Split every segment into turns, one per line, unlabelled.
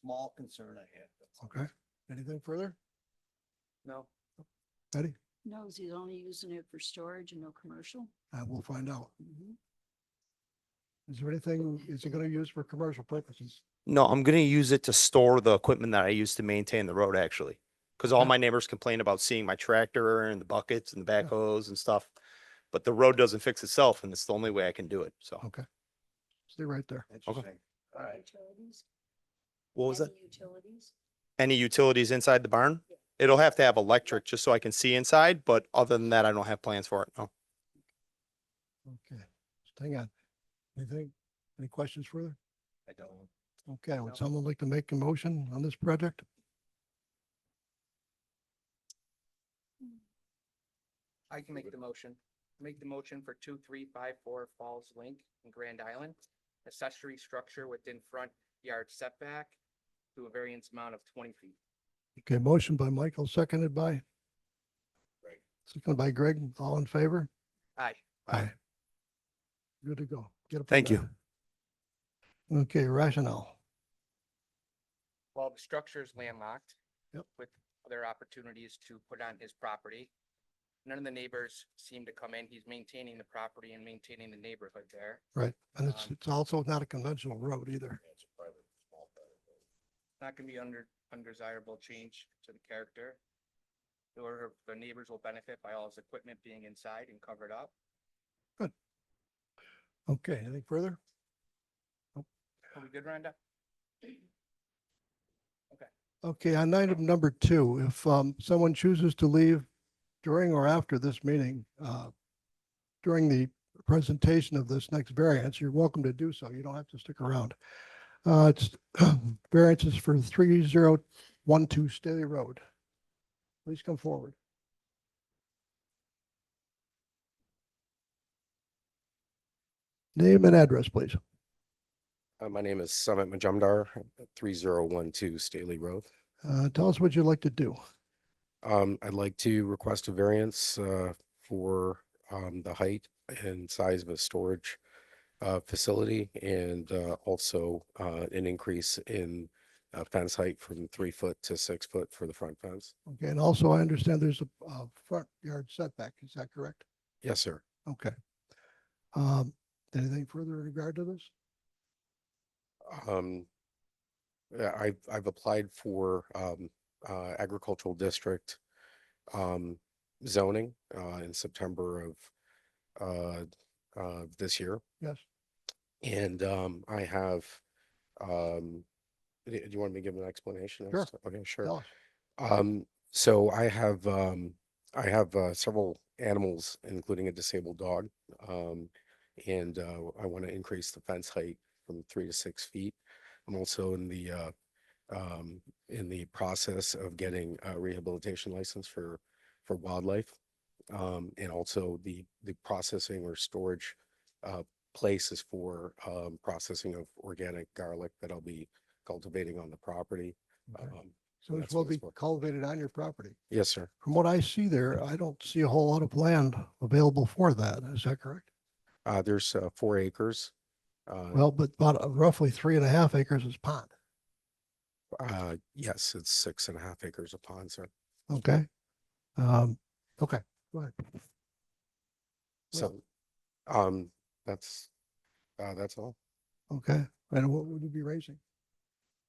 small concern I had.
Okay. Anything further?
No.
Betty?
No, he's only using it for storage and no commercial.
I will Uh, find out.
Mm-hmm.
Is there anything, is it gonna use for commercial purposes?
No, I'm gonna use it to store the equipment that I use to maintain the road actually. Cause all
Okay.
my neighbors complain about seeing my tractor and the buckets and the backhoes and stuff. But the road doesn't fix itself and it's the only way I can do it. So
Okay. Stay right there.
Interesting. All right.
Utilities.
what was that?
heavy Utilities.
Any utilities inside the barn?
Yeah.
It'll have to have electric just so I can see inside, but other than that, I don't have plans for it. No.
Okay. Just Hang on. Anything, any questions further?
I don't.
Okay,
No.
would someone like to make a motion on this project?
I can make the motion. Make the motion for two, three, five, four Falls Link in Grand Island. Accessory structure within front yard setback to a variance amount of twenty feet.
Okay, motion by Michael, seconded by?
Greg.
Seconded by Greg, all in favor?
Aye.
Aye. Good to go. Get up. and
Thank you.
down. Okay, rationale.
While the structure is landlocked.
Yep.
With other opportunities to put on his property. None of the neighbors seem to come in. He's maintaining the property and maintaining the neighborhood there.
Right, and it's,
Um,
it's also not a conventional road either.
Not gonna be under, undesirable change to the character. Or the neighbors will benefit by all his equipment being inside and covered up.
Okay, anything further?
Are we good, Rhonda?
Okay, on item number two, if um, someone chooses to leave during or after this meeting, uh, during the presentation of this next variance, you're welcome to do so. You don't have to stick around. Uh, It's variances for 3012 Staley Road. Please come forward. Name and address, please.
Uh, my name is Summit Majumdar, three zero one two Staley Road.
Uh, Tell us what you'd like to do.
Um, I'd like to request a variance, uh, for, um, the height and size of a storage, uh, facility and, uh, also, uh, an increase in uh, fence height from three foot to six foot for the front fence.
Okay, and also I understand there's a uh, front yard setback. Is that correct?
Yes, sir.
Okay. Um, anything further in regard to this?
Um, yeah, I've, I've applied for, um, uh, agricultural district, um, zoning, uh, in September of, uh, uh, this year.
Yes.
And, um, I have, um, do do you want me to give an explanation? as
Sure.
to- Okay, sure.
Tell us.
Um, so I have, um, I have, uh, several animals, including a disabled dog. Um, and, uh, I want to increase the fence height from three to six feet. I'm also in the, uh, um, in the process of getting a rehabilitation license for, for wildlife. Um, and also the, the processing or storage, uh, places for, um, processing of organic garlic that I'll be cultivating on the property.
Okay.
Um,
So this
that's
will
what it's
be
for.
cultivated on your property.
yes, sir.
From what I see there, I don't see a whole lot of land available for that. Is that correct?
Uh, there's uh, four acres. Uh,
Well, but about uh, roughly three and a half acres is pond.
uh, yes, it's six and a half acres of pond, sir.
Okay. Um, okay, go ahead. Yeah.
So, um, that's, uh, that's all.
Okay. And what would you be raising?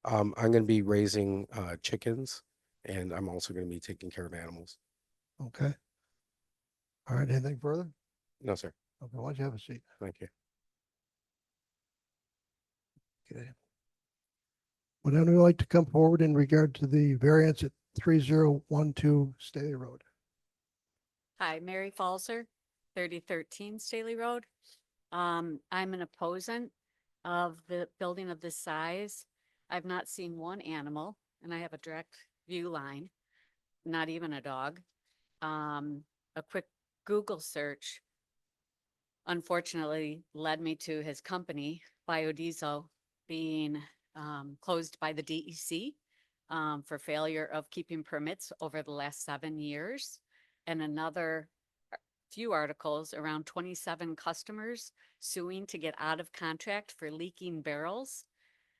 Um, I'm gonna be raising, uh, chickens and I'm also gonna be taking care of animals.
Okay. All right, anything further?
No, sir.
Okay, why don't you have a seat?
Thank you.
Okay. Would anyone like to come forward in regard to the variance at three zero one two Staley Road?
Hi, Mary Falzer, thirty thirteen Staley Road. Um, I'm an opposant of the building of this size. I've not seen one animal and I have a direct view line, not even a dog. Um, a quick Google search unfortunately led me to his company, Biodiesel, being um closed by the DEC um for failure of keeping permits over the last seven years and another ar- few articles around twenty-seven customers suing to get out of contract for leaking barrels.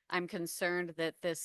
I'm concerned that this